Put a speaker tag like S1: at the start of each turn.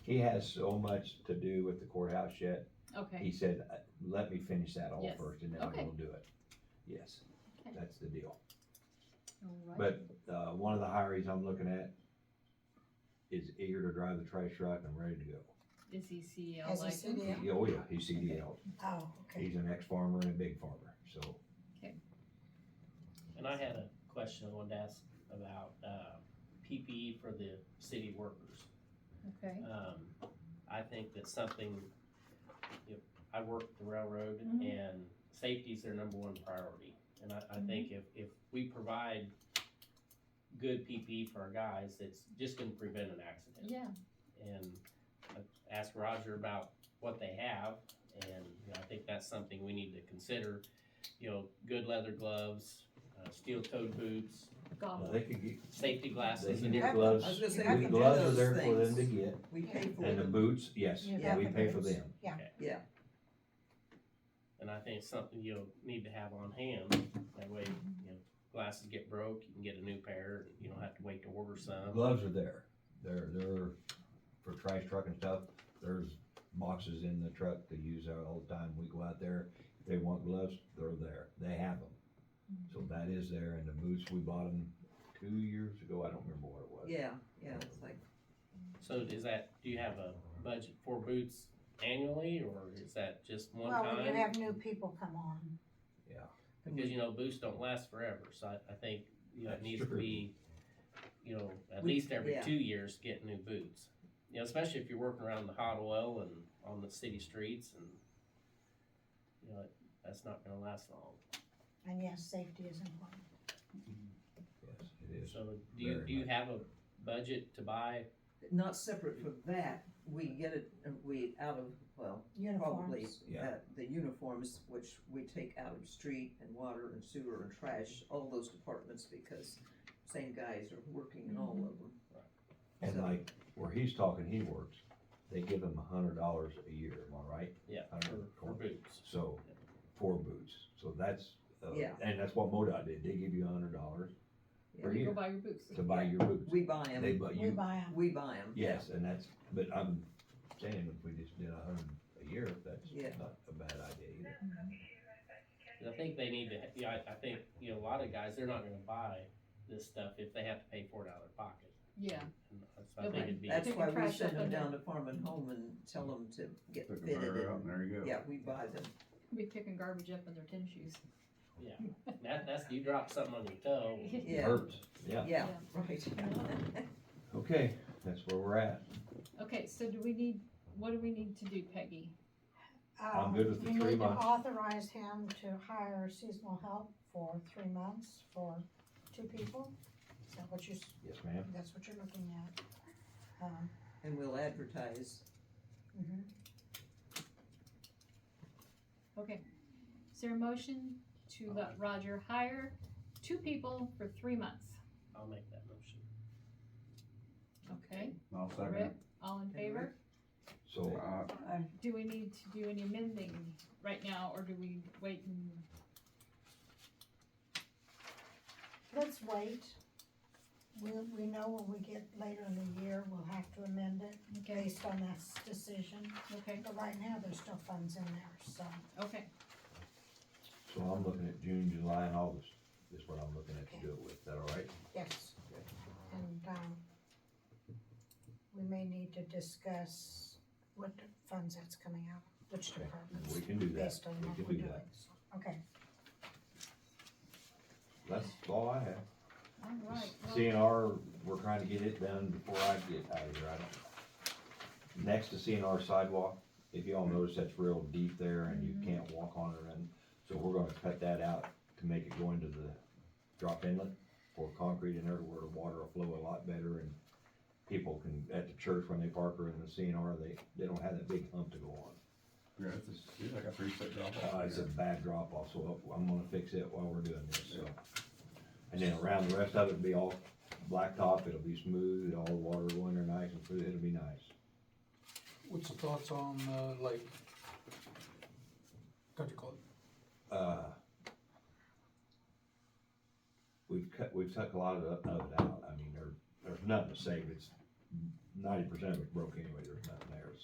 S1: He has so much to do with the courthouse yet. He
S2: Okay,
S1: said, uh, let me finish that all
S2: Yes.
S1: first and then I
S2: Okay.
S1: will do it. Yes,
S2: Okay.
S1: that's the deal.
S2: all right.
S1: But, uh, one of the hires I'm looking at is eager to drive the trash truck and ready to go.
S2: Is he E CDL
S3: As a
S2: licensed?
S3: city,
S1: He- Oh, yeah, he's CDL.
S3: oh, okay.
S1: He's an ex-farmer and a big farmer, so.
S4: And I had a question I wanted to ask about, uh, PPE for the city workers.
S2: Okay,
S4: Um, I think that's something, you know, I work the railroad
S2: Mhm.
S4: and safety's their number one priority. And I, I think if, if we provide good PPE for our guys, it's just gonna prevent an accident.
S2: yeah,
S4: and uh, ask Roger about what they have. And you know, I think that's something we need to consider, you know, good leather gloves, uh, steel-toed boots,
S2: golf,
S1: They could get,
S4: safety
S1: they
S4: glasses
S1: can
S4: and
S1: get
S4: ear-
S1: gloves.
S5: I was gonna say, I
S1: The
S5: can do
S1: gloves are
S5: those
S1: there for them
S5: things.
S1: to get.
S5: We pay for
S1: And the
S5: them.
S1: boots, yes,
S2: Yeah.
S1: we
S3: Yeah,
S1: pay for
S3: boots.
S1: them.
S4: And I think it's something you'll need to have on hand. That way, you know, glasses get broke, you can get a new pair. You don't have to wait to order some.
S1: Gloves are there. They're, they're for trash truck and stuff. There's boxes in the truck they use that all the time. We go out there. If they want gloves, they're there. They have them.
S2: Mm-hmm.
S1: So that is there. And the boots, we bought them two years ago. I don't remember what it was.
S5: Yeah, yeah, it's like,
S4: So is that, do you have a budget for boots annually or is that just one
S3: Well, when you
S4: time?
S3: have new people come on,
S4: Because, you know, boots don't last forever. So I, I think, you know, it
S1: That's
S4: needs to
S1: true.
S4: be, you know, at
S5: We-
S4: least every
S5: yeah.
S4: two years, get new boots. You know, especially if you're working around the hot oil and on the city streets and, you know, that's not gonna last long.
S3: and yes, safety is important.
S1: Yes, it is.
S4: So do you,
S1: Very
S4: do you
S1: much.
S4: have a budget to buy?
S5: not separate from that, we get it, uh, we out of, well, probably,
S3: Uniforms,
S1: Yeah.
S5: uh, the uniforms, which we take out of street and water and sewer and trash, all those departments, because same guys are working in
S2: Mm-hmm.
S5: all of them.
S1: And
S5: So-
S1: like where he's talking, he works, they give him a hundred dollars a year. Am I right?
S4: Yeah,
S1: I don't
S4: for,
S1: know.
S4: for boots.
S1: So, for boots. So that's, uh,
S5: Yeah.
S1: and that's what MoDOT did. They give you a hundred dollars per
S5: Yeah.
S2: you go
S1: year
S2: buy your boots.
S1: to buy your boots.
S5: We buy
S1: They,
S5: them,
S1: but
S3: we
S1: you,
S3: buy them,
S5: we buy them.
S1: yes, and that's, but I'm saying if we just did a hundred a year,
S5: Yeah.
S1: that's not a bad idea either.
S4: 'Cause I think they need to, yeah, I, I think, you know, a lot of guys, they're not gonna buy this stuff if they have to pay for it out of their pocket.
S2: Yeah,
S4: And So I think
S2: Okay.
S4: it'd be.
S5: That's
S2: Take
S5: why
S2: the
S5: we
S2: trash up
S5: send them
S2: under.
S5: down to Farm and Home and tell them to get
S6: Pick a
S5: fitted
S6: pair out and
S5: and,
S6: there you go.
S5: yeah, we buy them.
S2: be picking garbage up in their tennis shoes.
S4: Yeah, that, that's, you drop something on your toe.
S5: Yeah.
S1: Herbs, yeah.
S5: Yeah,
S2: Yeah.
S5: right.
S1: Okay, that's where we're at.
S2: Okay, so do we need, what do we need to do, Peggy?
S1: I'm good with the
S3: Um,
S1: three months.
S3: We need to authorize him to hire seasonal help for three months for two people. Is that what you, s-
S1: Yes, ma'am.
S3: that's what you're looking at? Um,
S5: And we'll advertise.
S3: mhm.
S2: Okay, is there a motion to let Roger hire two people for three months?
S4: I'll make that motion.
S2: Okay,
S6: I'll second
S2: Rick,
S6: it.
S2: all in favor?
S1: So
S6: Uh,
S2: Do we need to do any amending right now, or do we wait and,
S3: Let's wait. We, we know when we get later in the year, we'll have to amend it
S2: okay,
S3: based on that s- decision.
S2: okay,
S3: But right now, there's still funds in there, so.
S2: okay,
S1: So I'm looking at June, July, and August, is what I'm looking at to do it with, is that all right?
S3: Yes, and, um, we may need to discuss what funds that's coming out, of, which
S1: Okay.
S3: departments,
S1: We can do that,
S3: based on what
S1: we
S3: we're
S1: can do
S3: doing.
S1: that.
S3: so, Okay,
S1: That's all I have.
S2: all right. well-
S1: CNR, we're trying to get it done before I get out of here, I don't. Next to CNR sidewalk, if y'all notice, that's real deep there and you
S2: Mhm.
S1: can't walk on it and, so we're gonna cut that out to make it go into the drop inlet for concrete and everywhere, water will flow a lot better and people can, at the church when they park or in the CNR, they, they don't have that big hump to go on.
S6: yeah, it's a, it's like a three foot drop off.
S1: Uh, it's a bad drop off, so I'm gonna fix it while we're doing this, so. And then around the rest of it, will be all blacktop, it'll be smooth, all the water will enter nice and through, it'll be nice.
S7: What's your thoughts on uh, like, what do you call it?
S1: Uh, we've cut, we've took a lot of, of it out, I mean, there, there's nothing to save, it's ninety percent of it broke anyway, there's nothing